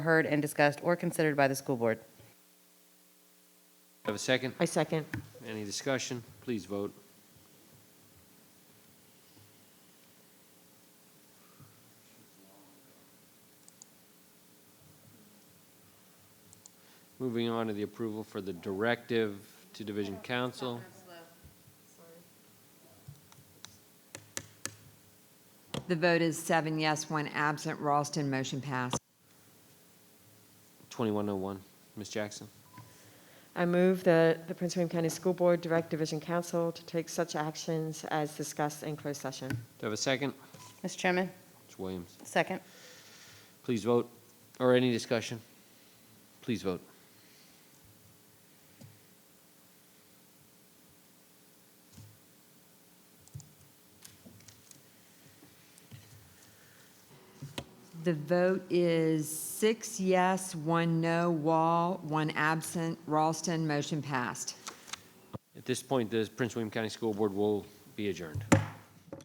heard and discussed or considered by the school board. Have a second? I second. Any discussion? Please vote. Moving on to the approval for the directive to Division Council. The vote is seven yes, one absent. Ralston, motion passed. 2101. Ms. oh Jackson, I move that the Prince William County School Board direct Division Council to take such actions as discussed in closed session. do I have a second? Mr. Chairman, Ms. Williams, second. please vote. Or any discussion? Please vote. The vote is six yes, one no. Wall, one absent. Ralston, motion passed. At this point, the Prince William County School Board will be adjourned.